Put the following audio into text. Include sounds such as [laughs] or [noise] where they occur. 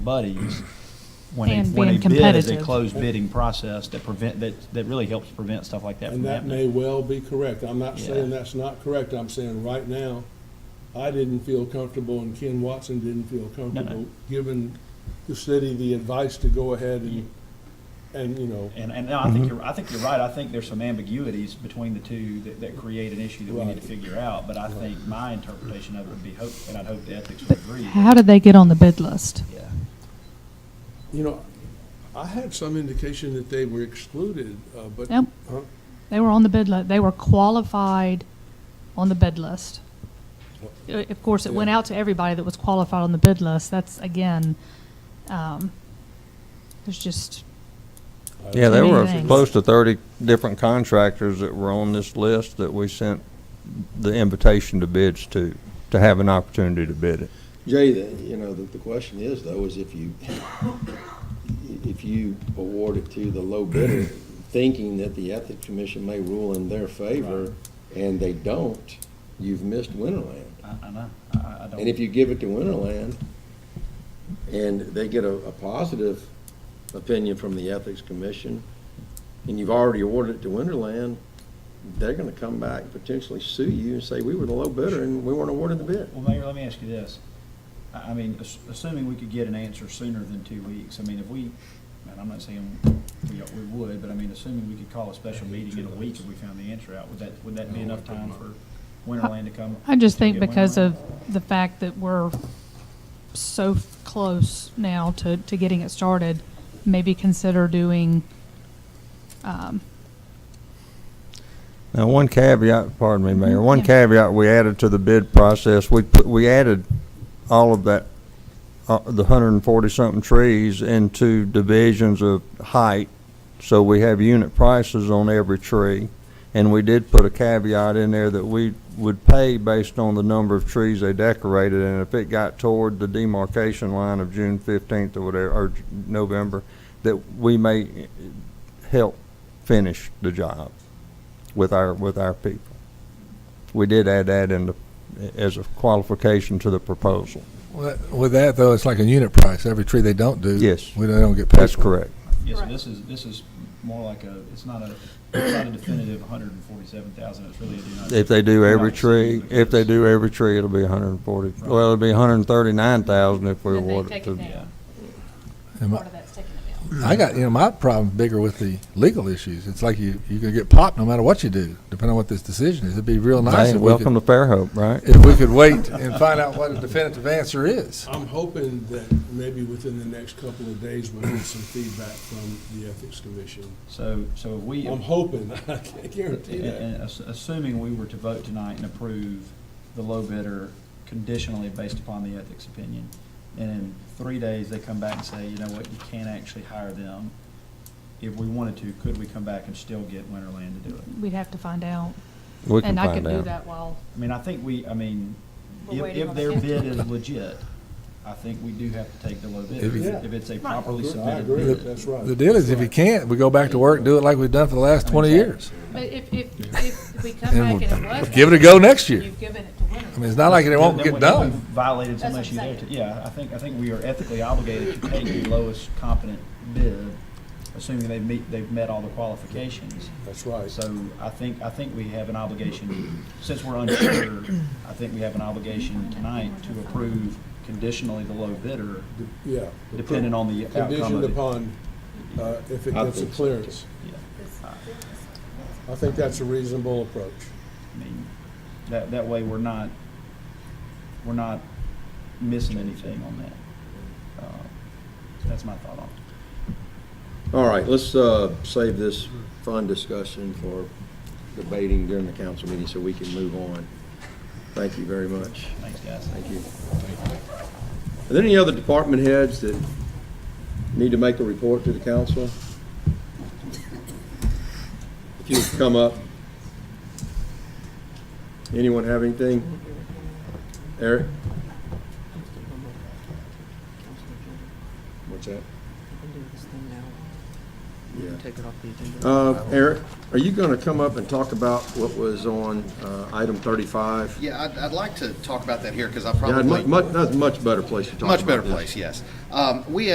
[clears throat] buddies when a, And when a being bid is a competitive. closed bidding process that prevent, that, that really helps prevent stuff like that from And that happening. may well be correct. I'm not saying Yeah. that's not correct. I'm saying right now, I didn't feel comfortable and Ken Watson didn't feel comfortable giving the city the advice to go ahead and, and, you know, And, and no, I think you're, I think you're right. I think there's some ambiguities between the two that, that create an issue that we need Right. to figure out. But I think my interpretation of it would be hope, and I'd hope the ethics would But agree. how did they get on the bid list? Yeah. you know, I had some indication that they were excluded, uh, but. Nope. Huh? They were on the bid list. They were qualified on the bid list. Uh, Of course, it went Yeah. out to everybody that was qualified on the bid list. That's again, um, there's just I- Yeah, there Many were things. close to 30 different contractors that were on this list that we sent the invitation to bids to, to have an opportunity to bid it. Jay, the- you know, the, the question is though, is if you, if you award it to the low bidder, thinking that the Ethics Commission may rule in their favor, and they don't, you've missed Winterland. I, I know. I- I, I And if don't, you give it to Winterland, and they get a, a positive opinion from the Ethics Commission, and you've already awarded it to Winterland, they're gonna come back and potentially sue you and say, we were the low bidder and we weren't awarded the bid. well, Mayor, let me ask you this. I, I mean, ass- assuming we could get an answer sooner than two weeks, I mean, if we, and I'm not saying we, we would, but I mean, assuming we could call a special meeting in a week if we found the answer out, would that, would that be enough time for Winterland to come? I just to think get because Winterland? of the fact that we're so f- close now to, to getting it started, maybe consider doing, um, Now, one caveat, pardon me, Mayor, one Yeah. caveat we added to the bid process, we put, we added all of that, uh, the hundred and forty-something trees into divisions of height, so we have unit prices on every tree. And we did put a caveat in there that we would pay based on the number of trees they decorated, and if it got toward the demarcation line of June fifteenth or whatever, or J- November, that we may eh, help finish the job with our, with our people. We did add that in the, as a qualification to the proposal. Well, that- With that, though, it's like a unit price. Every tree they don't do. Yes. We don't- they don't get paid. That's for it. correct. Yeah, so Right. this is, this is more like a, it's not a, it's not a definitive hundred and forty-seven thousand, it's really a do not. If they do do not every tree, exceed if they because- do every tree, it'll be hundred and forty, well, it'll be hundred and thirty-nine thousand if we Then they award it take to. it down. Yeah, And Part my- of that's taken it down. I got, you know, my problem's bigger with the legal issues. It's like you, you're going to get popped no matter what you do, depending on what this decision is. It'd be real nice Hey, if we welcome could, to Fairhope, right? if we could wait and find out what a definitive answer is. I'm hoping that maybe within the next couple of days, we'll get some feedback from the Ethics Commission. so, so if we, I'm and- hoping, [laughs] I can't guarantee that. and ass- assuming we were to vote tonight and approve the low bidder conditionally based upon the ethics opinion, and in three days, they come back and say, you know what, you can't actually hire them. If we wanted to, could we come back and still get Winterland to do it? we'd have to find out. We can And I could find do out. that while I mean, I think we, I mean, We're if, waiting if on their the- bid is legit, I think we do have to take the low bidder, If you- if it's a properly I submitted agree, bid. that's right. The deal is if you can't, we go back to work, do it like we've done for the last 20 years. But if, if, if we come And back and we'll it was. give it a go next year. You've given it to I mean, Winter. it's not like it won't Then get we- done. we've Violated some That's issue what I'm there, too. saying. yeah, I think, I think we are ethically obligated to take the lowest competent bid, assuming they meet, they've met all the qualifications. That's right. So I think, I think we have an obligation, since we're [coughs] unsure, I think we have an obligation tonight to approve conditionally the low bidder, Yeah. depending on the outcome of Conditioned it. upon, uh, if it I gets a think so, clearance. Yeah. I think that's a reasonable approach. I mean, that, that way we're not, we're not missing anything on that. Uh, That's my thought on it. All right, let's uh, save this fun discussion for debating during the council meeting so we can move on. Thank you very much. Thanks, guys. Thank you. Are there any other department heads that need to make a report to the council? If you would come up. Anyone have anything? Eric? What's that? Yeah. Take it off the agenda. Uh, Eric, are you gonna come up and talk about what was on, uh, item thirty-five? Yeah, I'd, I'd like to talk about that here because I Yeah, probably, mu- mu- that's a much better place to talk about much better this. place, yes. Um, We